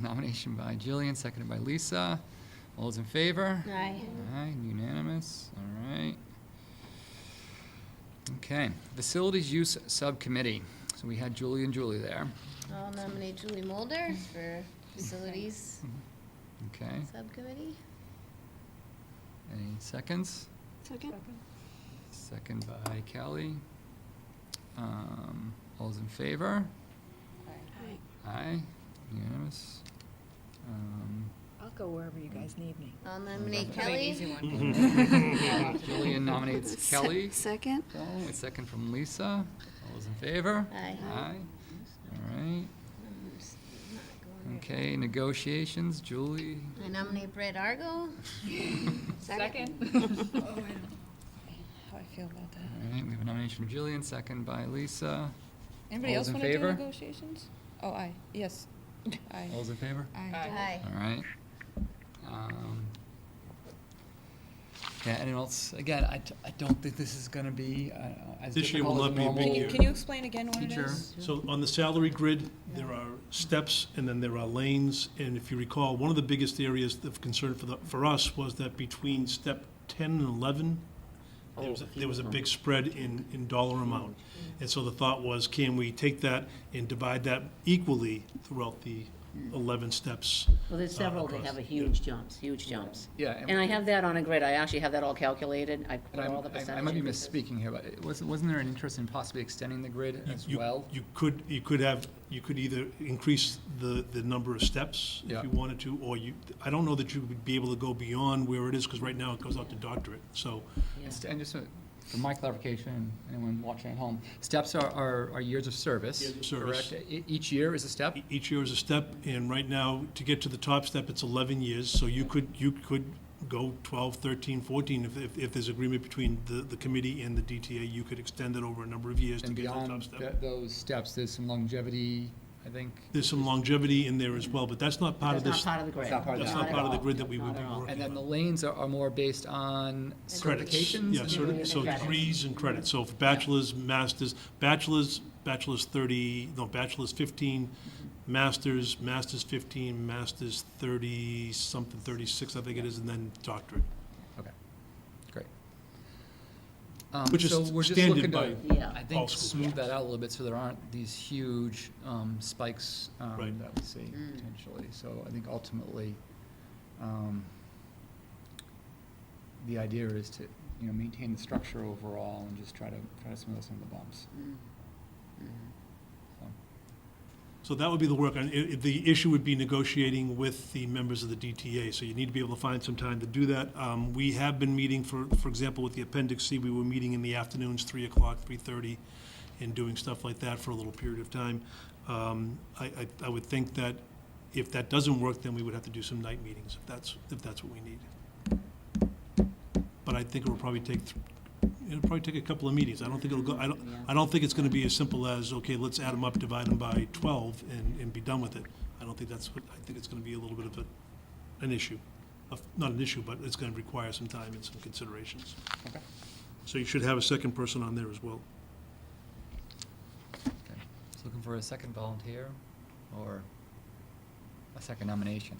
Nomination by Jillian, seconded by Lisa. All those in favor? Aye. Aye, unanimous, all right. Okay, Facilities Use Subcommittee. So we had Julie and Julie there, I'll nominate Julie Mulder for Facilities okay? Subcommittee. Any seconds? Second? Second by Kelly. Um, All those in favor? Aye. Aye, unanimous. Um, I'll go wherever you guys need me. I'll nominate That'll be an easy Kelly. one. Julian nominates Kelly. Second? Oh, a second from Lisa. All those in favor? Aye. Aye, all right. I'm just not going there. Okay, negotiations, Julie. I nominate Brett Argo. Oh, I don't know how I feel about All that. right, we have a nomination from Jillian, second by Lisa. Anybody All else those in want to do favor? negotiations? Oh, aye, yes. Aye. Oh. All those in favor? Aye. Aye. All right. Um, Yeah, anyone else? Again, I, d- I don't think this is gonna be uh, as This year will difficult as a not be a big normal- year. Can you explain again what it Teacher. is? So on the salary grid, there are steps and then there are lanes. And if you recall, one of the biggest areas of concern for the, for us was that between step ten and eleven, there was, there was a big spread in, in dollar amount. And so the thought was, can we take that and divide that equally throughout the eleven steps? Well, Oh, there's several that have a huge jumps, huge jumps. Yeah, and- And I have that on a grid, I actually have that all calculated, I put And I'm- all the I percentages. I might be misspeaking here, but it was, wasn't there an interest in possibly extending the grid as You- well? You could, you could have, you could either increase the, the number of steps Yeah. if you wanted to, or you, I don't know that you would be able to go beyond where it is, because right now it goes out to doctorate, so. Yeah. St- And just uh, for my clarification, anyone watching at home, steps are, are, are years of service. Years of service. Correct? E- Each year is a step? E- Each year is a step, and right now, to get to the top step, it's 11 years, so you could, you could go 12, 13, 14, if, if, if there's agreement between the, the committee and the DTA, you could extend it over a number of years to And get to the top beyond step. tha- those steps, there's some longevity, I think. There's some longevity in there as well, but that's not part of That's this, not part of the grid. It's not part of that's that. not at part of the all. grid that we would Not be at all. working And then on. the lanes are, are more based on Credits, certifications? yeah, certi- so Credits. degrees and credits, so for bachelor's, master's, bachelor's, bachelor's thirty, no, bachelor's fifteen, master's, master's fifteen, master's thirty, something, thirty-six, I think it is, and then doctorate, Okay, great. Um, Which is so we're just standard looking to, by Yeah. I all think, schools. smooth that out a little bit so there aren't these huge um, spikes um, Right. that we see potentially. So I think ultimately, um, the idea is to, you know, maintain the structure overall and just try to, try to smooth out some of the bumps. Mm. Mm. So that would be the work, and i- i- the issue would be negotiating with the members of the DTA, so you need to be able to find some time to do that. Um, We have been meeting, for, for example, with the Appendix C, we were meeting in the afternoons, three o'clock, three-thirty, and doing stuff like that for a little period of time. Um, I, I, I would think that if that doesn't work, then we would have to do some night meetings, if that's, if that's what we need. But I think it'll probably take, th- it'll probably take a couple of meetings, I don't think it'll go, I don't, Yeah. I don't think it's gonna be as simple as, okay, let's add them up, divide them by twelve, and, and be done with it. I don't think that's what, I think it's gonna be a little bit of a, an issue, of, not an issue, but it's gonna require some time and some considerations. Okay. So you should have a second person on there as well. Okay. Just looking for a second volunteer or a second nomination.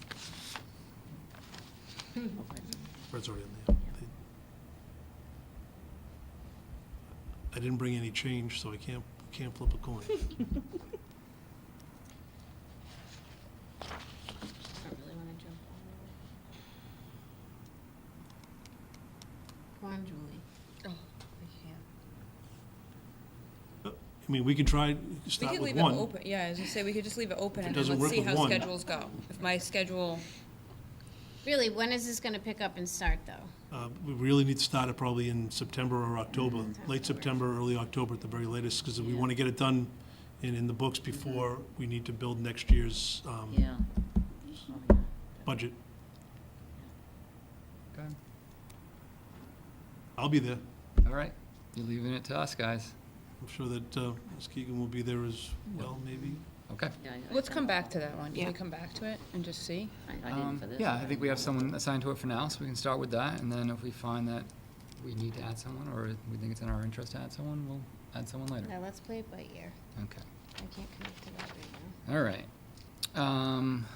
Fred's already on there. I didn't bring any change, so I can't, can't flip a coin. I don't really want to jump on Come on, Julie. I mean, we can try, We start could with leave it one. open, yeah, as you say, we could just leave it open and If it then doesn't let's work see with how one. schedules go. If my schedule, Really, when is this going to pick up and start, though? Uh, We really need to start it probably in September or October, late September, early October at the very latest, because we want to get it done and in the books before we need to build next year's um, Yeah. budget. Okay. I'll be there. All right, you're leaving it to us, guys. I'm sure that uh, Ms. Keegan will be there as well, maybe. Okay. Yeah, I- I let's thought come back about to that one. Can Yeah. we come back to it and just see? it. I I didn't for Um, this. Yeah, I think we have someone assigned to it for now, so we can start with that, and then if we find that we need to add someone, or we think it's in our interest to add someone, we'll add someone later. Now, let's play it by ear. Okay, I can't commit to that right now. all right. Um,